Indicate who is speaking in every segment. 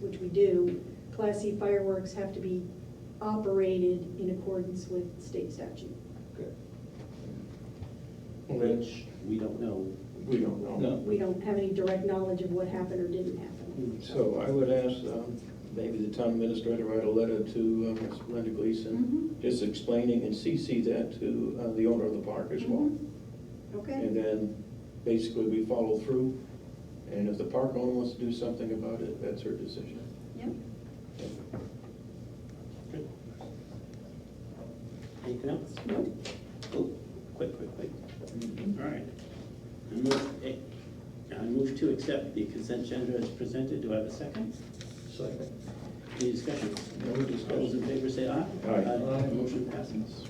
Speaker 1: which we do, Class C fireworks have to be operated in accordance with state statute.
Speaker 2: Good.
Speaker 3: Which we don't know.
Speaker 2: We don't know.
Speaker 3: No.
Speaker 1: We don't have any direct knowledge of what happened or didn't happen.
Speaker 2: Hmm, So I would ask, um, maybe the town administrator write a letter to uh, Ms. Brenda Gleason, just explaining and CC that to uh, the owner of the park as well. And
Speaker 1: Mm-hmm. Okay,
Speaker 2: then basically we follow through, and if the park owner wants to do something about it, that's her decision.
Speaker 1: yep.
Speaker 3: Anything else?
Speaker 1: Nope.
Speaker 3: Oh, quick, quick, quick. All right. I move, eh, I move to accept the consent agenda as presented. Do I have a second?
Speaker 2: Second.
Speaker 3: Any discussion?
Speaker 2: No
Speaker 3: All those in
Speaker 2: discussion.
Speaker 3: favor say aye.
Speaker 2: Aye.
Speaker 3: Motion passes.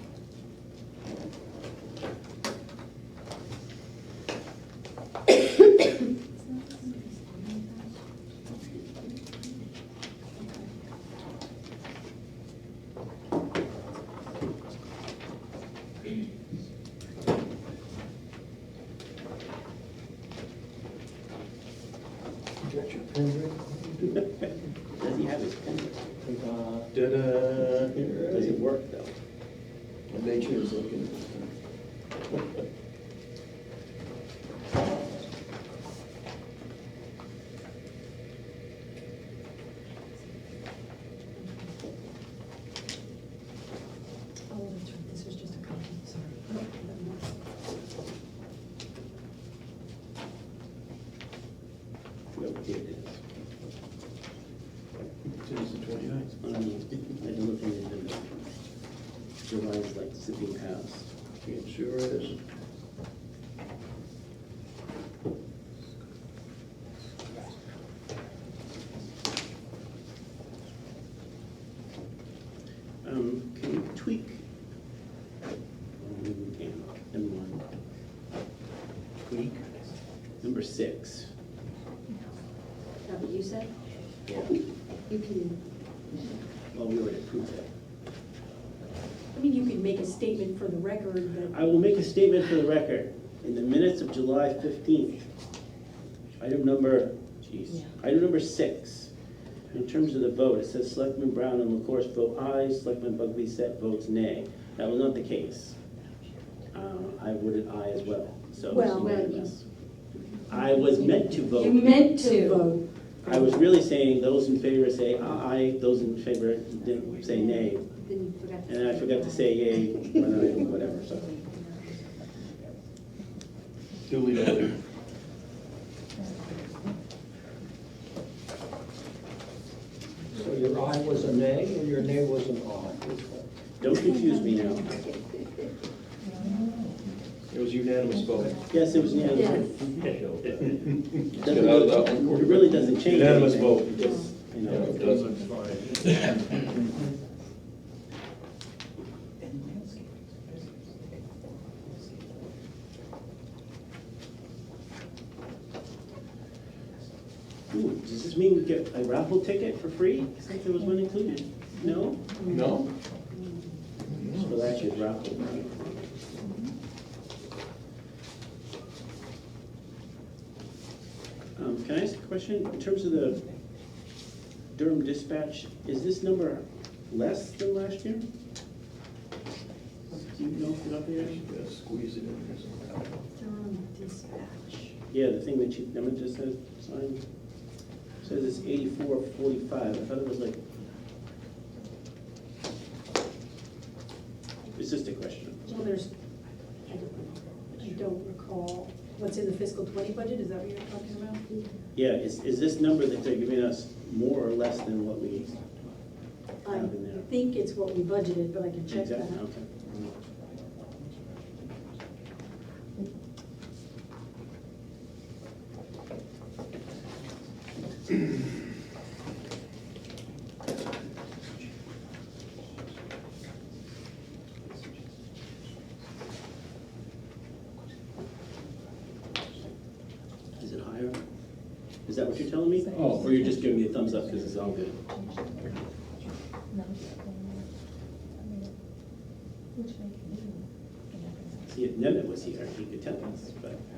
Speaker 3: Does he have his pen?
Speaker 4: Uh,
Speaker 2: Ta-da. Here it
Speaker 3: Does it
Speaker 2: is.
Speaker 3: work though?
Speaker 2: And they choose looking.
Speaker 1: Oh, that's right, this was just a copy, sorry.
Speaker 3: No, here it is.
Speaker 2: Today's the twenty-ninth.
Speaker 3: Um, I don't know if you remember. July's like sipping past.
Speaker 2: It sure is.
Speaker 3: Um, can you tweak? Um, we can. Number one. Tweak. Number six.
Speaker 1: That what you said?
Speaker 3: Yeah.
Speaker 1: You can,
Speaker 3: Well, we already approved that.
Speaker 1: I mean, you could make a statement for the record, but
Speaker 3: I will make a statement for the record. In the minutes of July fifteenth, item number, geez, item number six. In terms of the vote, it says Selectman Brown and LaCourse vote aye, Selectman Bugby set votes nay. That was not the case. Uh, I voted aye as well, so. it's
Speaker 1: Well, well,
Speaker 3: unanimous. I was meant to vote.
Speaker 1: You meant to vote.
Speaker 3: I was really saying, those in favor say aye, those in favor didn't say nay.
Speaker 5: Then you forgot to-
Speaker 3: And I forgot to say yay, when I- whatever, so.
Speaker 2: Duly noted.
Speaker 4: So your aye was a nay, and your nay was an aye. Which one?
Speaker 3: Don't confuse me now.
Speaker 2: It was unanimous vote.
Speaker 3: Yes, it was unanimous.
Speaker 1: Yes.
Speaker 3: It
Speaker 2: Get out of that
Speaker 3: doesn't
Speaker 2: one.
Speaker 3: really- it really doesn't change anything.
Speaker 2: Unanimous vote.
Speaker 3: It just, you
Speaker 2: No, it
Speaker 3: know,
Speaker 2: doesn't.
Speaker 3: ooh, does this mean we get a raffle ticket for free? I think there was one included. No?
Speaker 2: No?
Speaker 3: So that's your raffle. right? Um, can I ask a question? In terms of the Durham dispatch, is this number less than last year? Do you know if it's up there?
Speaker 2: Gotta Squeeze it in there somehow.
Speaker 1: Durham dispatch.
Speaker 3: Yeah, the thing that you, number just says, sign, says it's eighty-four forty-five, I thought it was like. It's just a question.
Speaker 1: Well, there's, I don't know. I don't recall, what's in the fiscal twenty budget, is that what you're talking about?
Speaker 3: Yeah, is, is this number that they're giving us more or less than what we have in
Speaker 1: I
Speaker 3: there?
Speaker 1: think it's what we budgeted, but I can check that
Speaker 3: Exactly,
Speaker 1: out.
Speaker 3: okay. Is it higher? Is that what you're telling me? Oh. Or you're just giving me a thumbs up because it's all good? See, if Nemeth was here, he could tell us, but